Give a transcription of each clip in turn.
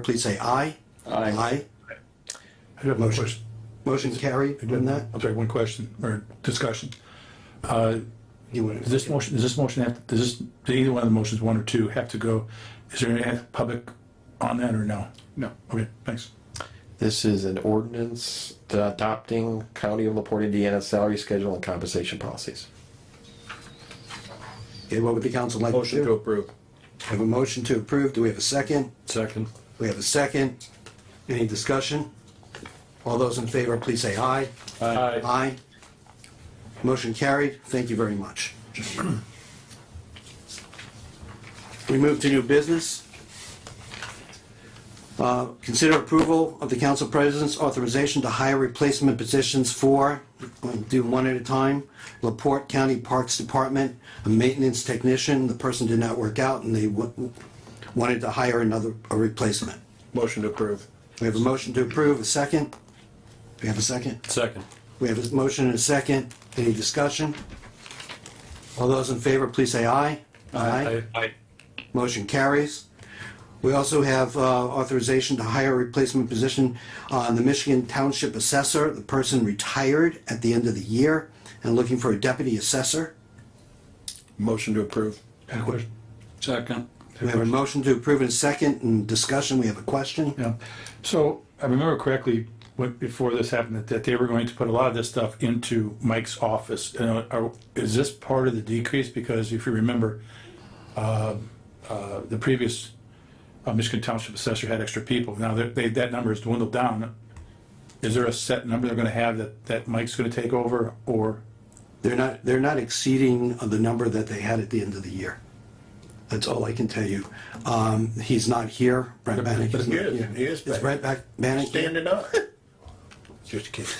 please say aye. Aye. I do have one question. Motion carried on that. I'm sorry, one question or discussion. You want Does this motion, does this motion have, does this, do either one of the motions, one or two, have to go, is there any have public on that or no? No. Okay, thanks. This is an ordinance adopting County of LaPorte, Indiana salary schedule and compensation policies. Okay, what would the council like to Motion to do? approve. We Have a motion to approve. Do we have a second? Second. We have a second. Any discussion? All those in favor, please say aye. Aye. Aye. Motion carried. Thank you very much. We move to new business. Uh, Consider approval of the council president's authorization to hire replacement positions for, we'll do one at a time, Laporte County Parks Department, a maintenance technician. The person did not work out and they wa- wanted to hire another, a replacement. Motion to approve. We have a motion to approve, a second? We have a second? Second. We have a motion and a second. Any discussion? All those in favor, please say aye. Aye. Motion carries. We also have uh, authorization to hire a replacement position uh, on the Michigan Township Assessor. The person retired at the end of the year and looking for a deputy assessor. Motion to approve. Got a question? Second. We have a motion to approve in a second and discussion. We have a question. Yeah. So I remember correctly, what, before this happened, that, that they were going to put a lot of this stuff into Mike's office. And are- are, is this part of the decrease? Because if you remember, uh, uh, the previous uh, Michigan Township Assessor had extra people. Now that they, that number has dwindled down. Is there a set number they're gonna have that, that Mike's gonna take over or? They're not, they're not exceeding uh, the number that they had at the end of the year. That's all I can tell you. Um, he's not here, Brent Bannick. But is he not is, here. he is Is Brent back, Bannick? Standing up. Just kidding.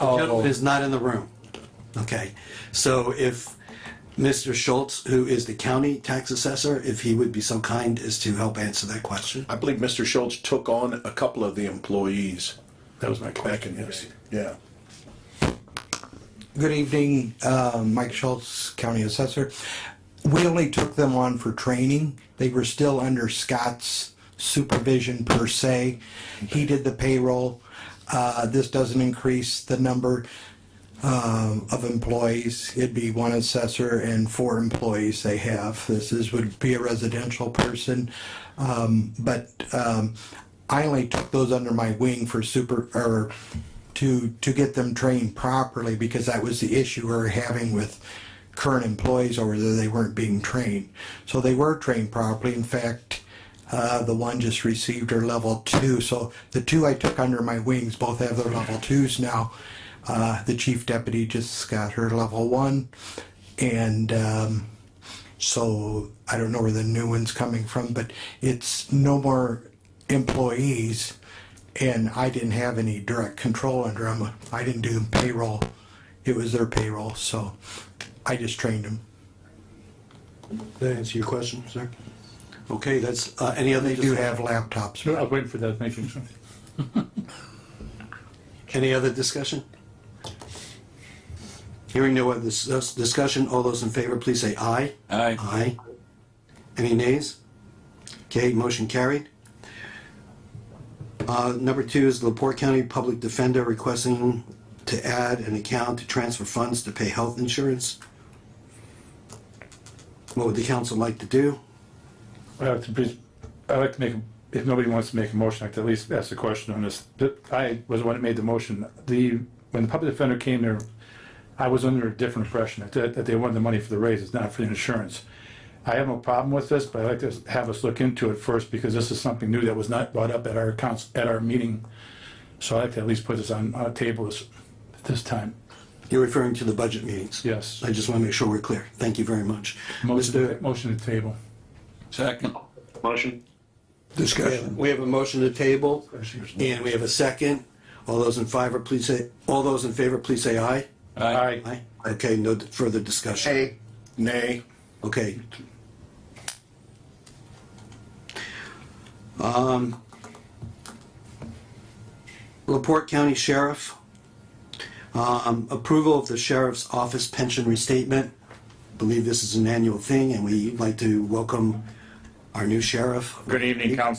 Gentleman is not in the room. Okay, so if Mr. Schultz, who is the county tax assessor, if he would be so kind as to help answer that question? I believe Mr. Schultz took on a couple of the employees That was my back in question, yes. his, yeah. Good evening, uh, Mike Schultz, County Assessor. We only took them on for training. They were still under Scott's supervision per se. He did the payroll. Uh, This doesn't increase the number um, of employees. It'd be one assessor and four employees they have. This is, would be a residential person. Um, But um, I only took those under my wing for super, or to to get them trained properly because that was the issue we were having with current employees or whether they weren't being trained. So they were trained properly. In fact, uh, the one just received her level two. So the two I took under my wings both have their level twos now. Uh, the chief deputy just got her level one, and um, so I don't know where the new one's coming from, but it's no more employees. And I didn't have any direct control under them. I didn't do payroll. It was their payroll, so I just trained them. Did I answer your question, sir? Okay, that's, uh, any other? They do have laptops. I was waiting for that, making sure. Any other discussion? Hearing no other dis- uh, discussion, all those in favor, please say aye. Aye. Aye. Any nays? Okay, motion carried. Uh, Number two is Laporte County Public Defender requesting to add an account to transfer funds to pay health insurance. What would the council like to do? Well, to please, I'd like to make, if nobody wants to make a motion, I'd like to at least ask a question on this. But I was the one that made the motion. The, when the public defender came there, I was under a different impression that, that they wanted the money for the raises, not for the insurance. I have no problem with this, but I'd like to have us look into it first because this is something new that was not brought up at our council, at our meeting. So I'd like to at least put this on, on a table this, this time. You're referring to the budget meetings? Yes. I just want to make sure we're clear. Thank you very much. Motion, Mr. motion to table. Second. Motion. Discussion. We have a motion to table, and we have a second. All those in favor, please say, all those in favor, please say aye. Aye. Aye. Okay, no further discussion. Nay. Nay. Okay. Um, Um, Laporte County Sheriff, um, approval of the sheriff's office pension restatement. Believe this is an annual thing, and we'd like to welcome our new sheriff. Good evening, Council.